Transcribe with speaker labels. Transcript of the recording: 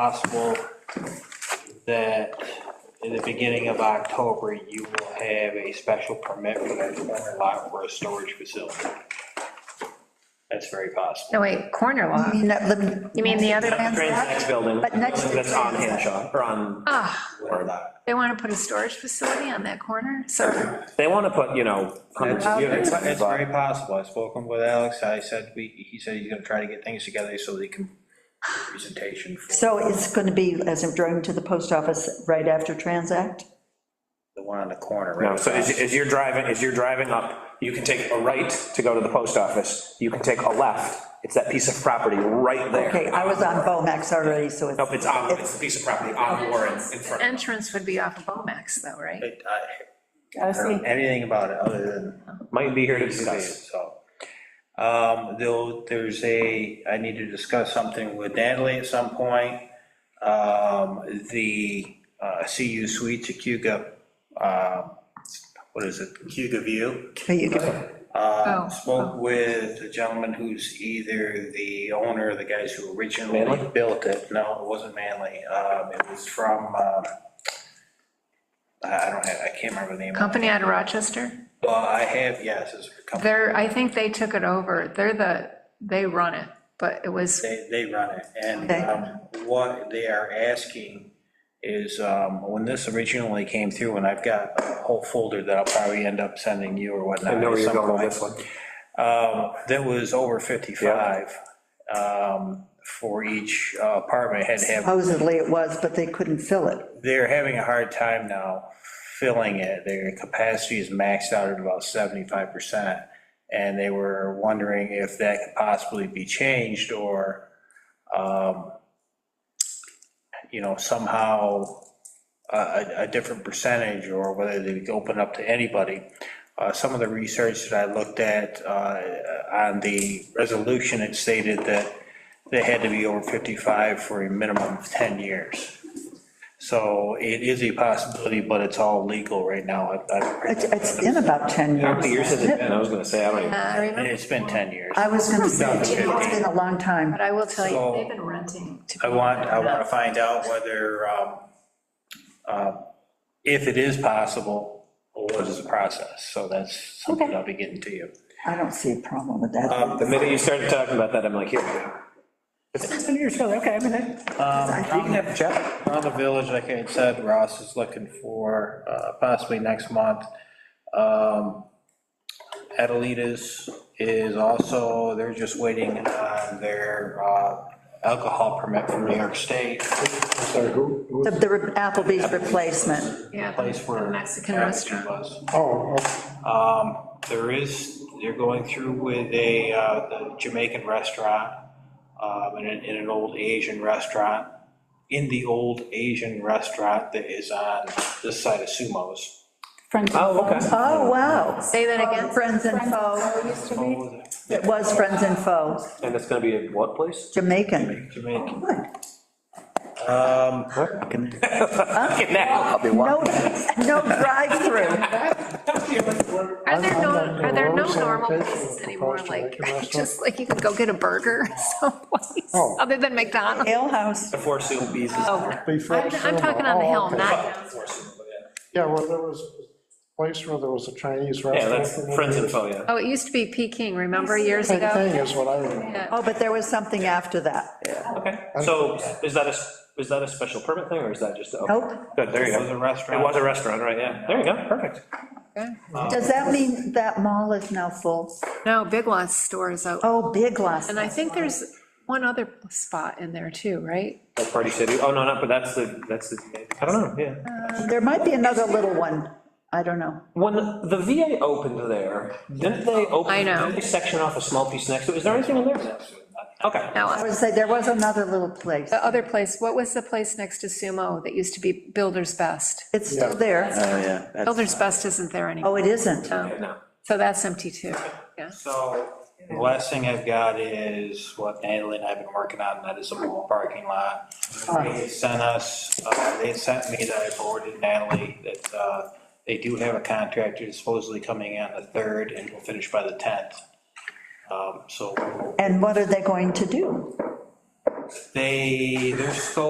Speaker 1: possible that in the beginning of October, you will have a special permit for that corner lot for a storage facility? That's very possible.
Speaker 2: No, wait, corner lot.
Speaker 3: You mean that lim-
Speaker 2: You mean the other
Speaker 4: Trains next building.
Speaker 3: But next to
Speaker 4: That's on
Speaker 3: Trains.
Speaker 4: Hanshaw, or on,
Speaker 2: Ah,
Speaker 4: or that.
Speaker 2: they want to put a storage facility on that corner, so,
Speaker 4: They want to put, you know, hundreds
Speaker 3: Oh.
Speaker 4: of units.
Speaker 5: It's
Speaker 4: in the
Speaker 5: it's very
Speaker 4: block.
Speaker 5: possible. I spoke with Alex. I said, we, he said he's gonna try to get things together so they can presentation for
Speaker 3: So it's going to be, as I'm driving to the post office, right after Transact?
Speaker 5: the one on the corner,
Speaker 4: No,
Speaker 5: right?
Speaker 4: so as, as you're driving, as you're driving up, you can take a right to go to the post office, you can take a left, it's that piece of property right there.
Speaker 3: Okay, I was on Bomax already, so it's.
Speaker 4: Nope, it's on, it's a piece of property on Warren in front of.
Speaker 2: entrance would be off of Bomax though, right?
Speaker 5: It- I-
Speaker 6: Gotta
Speaker 5: I don't
Speaker 6: see.
Speaker 5: know Anything about it other than.
Speaker 4: Might be here to discuss.
Speaker 5: So, um, though, there's a, I need to discuss something with Natalie at some point. Um, the, uh, CU Suites at Cuba, um, what is it, Cuba View?
Speaker 3: Okay, you can-
Speaker 5: Uh,
Speaker 2: Oh.
Speaker 5: Spoke with the gentleman who's either the owner, or the guys who originally
Speaker 4: Manley?
Speaker 5: built it. No, it wasn't Manley. Um, It was from, um, I I don't have, I can't remember the name. of it.
Speaker 2: Company out of Rochester,
Speaker 5: Well, I have, yes, it's a company.
Speaker 2: they're, I think they took it over, they're the, they run it, but it was,
Speaker 5: They, they run it. And
Speaker 3: Okay.
Speaker 5: um, what they are asking is, um, when this originally came through, and I've got a whole folder that I'll probably end up sending you or whatnot.
Speaker 4: I know
Speaker 5: at
Speaker 4: where you're
Speaker 5: some
Speaker 4: going with
Speaker 5: point.
Speaker 4: this one.
Speaker 5: Um, That was over 55 um, for each uh, apartment had to
Speaker 3: Oh,
Speaker 5: have,
Speaker 3: Supposedly it was, but they couldn't fill it.
Speaker 5: they're having a hard time now filling it. Their capacity is maxed out at about 75%. And they were wondering if that could possibly be changed or, um, you know, somehow a, a- a different percentage or whether they could open up to anybody. Uh, Some of the research that I looked at uh, on the resolution, it stated that they had to be over 55 for a minimum of 10 years. So it is a possibility, but it's all legal right now. I- I-
Speaker 3: It's, it's in about 10 years.
Speaker 4: How many years has it
Speaker 3: hasn't
Speaker 4: been? I was gonna say, I don't even.
Speaker 2: uh, I remember,
Speaker 5: It's been 10 years.
Speaker 3: I was going to say, it's been a long time.
Speaker 2: but I will tell
Speaker 5: So-
Speaker 2: you, they've been renting. to
Speaker 5: I want, I
Speaker 2: people.
Speaker 5: want to find out whether, um, um, if it is possible, what is the process? So that's something I'll be getting to you.
Speaker 3: I don't see a problem with that.
Speaker 4: The minute you started talking about that, I'm like, here we go. It's ten years ago, okay, I mean, that- you can
Speaker 5: Um,
Speaker 4: have a chat.
Speaker 5: Around the village, like I had said, Ross is looking for uh, possibly next month. Um, Adelitas is also, they're just waiting on their uh, alcohol permit from New York State.
Speaker 7: Sorry, who, who,
Speaker 3: The- The Applebee's replacement,
Speaker 2: Yeah,
Speaker 5: Place where.
Speaker 2: the Mexican
Speaker 5: Appleton
Speaker 2: restaurant.
Speaker 5: was.
Speaker 7: oh, oh,
Speaker 5: Um, There is, they're going through with a uh, the Jamaican restaurant, um, and an, and an old Asian restaurant. In the old Asian restaurant that is on this side of Sumo's.
Speaker 6: Friends.
Speaker 4: Oh, okay.
Speaker 3: oh, wow.
Speaker 2: Say that again,
Speaker 3: Friends and Foe,
Speaker 6: Used to be.
Speaker 5: Oh, the
Speaker 3: it was Friends and Foe,
Speaker 4: And it's gonna be a what place?
Speaker 3: Jamaican. Oh,
Speaker 5: Jamaican.
Speaker 3: Good.
Speaker 5: Um,
Speaker 4: Now.
Speaker 3: No, no drive-through.
Speaker 2: are there no,
Speaker 7: I'm-
Speaker 2: are there no
Speaker 7: I'm-
Speaker 2: normal
Speaker 7: I'm-
Speaker 2: places anymore,
Speaker 7: I'm-
Speaker 2: like,
Speaker 7: I'm-
Speaker 2: just like you could go get a burger someplace, other than McDonald's?
Speaker 3: Ale House.
Speaker 4: The Four Seal Bees is.
Speaker 2: Oh,
Speaker 7: Beef
Speaker 2: I'm,
Speaker 7: Restaurant.
Speaker 2: I'm talking on the
Speaker 7: Oh,
Speaker 2: hill,
Speaker 7: okay.
Speaker 2: not down.
Speaker 7: Yeah, well, there was a place where there was a Chinese
Speaker 4: Yeah,
Speaker 7: restaurant.
Speaker 4: that's Friends and Foe, yeah.
Speaker 2: Oh, it used to be Peking, remember, years
Speaker 7: Same thing
Speaker 2: ago?
Speaker 7: is what I remember.
Speaker 3: Oh, but there was something after that.
Speaker 4: Okay, so is that a, is that a special permit thing, or is that just? a-
Speaker 3: Nope.
Speaker 4: Good, there you
Speaker 5: It was a
Speaker 4: go. It
Speaker 5: restaurant.
Speaker 4: was a restaurant, right, yeah. There you go, perfect.
Speaker 5: Uh,
Speaker 3: Does that mean that mall is now full?
Speaker 2: No, Big Lots store is out,
Speaker 3: Oh, Big Lots.
Speaker 2: and I think there's one other spot in there too, right?
Speaker 4: Like Party City, oh, no, no, but that's the, that's the, I don't know, yeah.
Speaker 3: There might be another little one. I don't know.
Speaker 4: When the VA opened there, didn't they open?
Speaker 2: I know.
Speaker 4: Didn't they section off a small piece next to it? Is there anything in there? Okay.
Speaker 3: I
Speaker 2: Now,
Speaker 3: would say there was another little place.
Speaker 2: the other place, what was the place next to Sumo that used to be Builder's Best?
Speaker 3: It's still there.
Speaker 5: Oh, yeah. that's-
Speaker 2: Builder's Best isn't there anymore,
Speaker 3: Oh, it isn't.
Speaker 2: so
Speaker 4: No.
Speaker 2: so that's empty too, yeah.
Speaker 5: So, the last thing I've got is what Natalie and I have been working on, and that is a mall parking lot. They sent us, uh, they sent me that I forwarded Natalie, that uh, they do have a contractor supposedly coming in the 3rd and will finish by the 10th. Um, So,
Speaker 3: And what are they going to do?
Speaker 5: they, their scope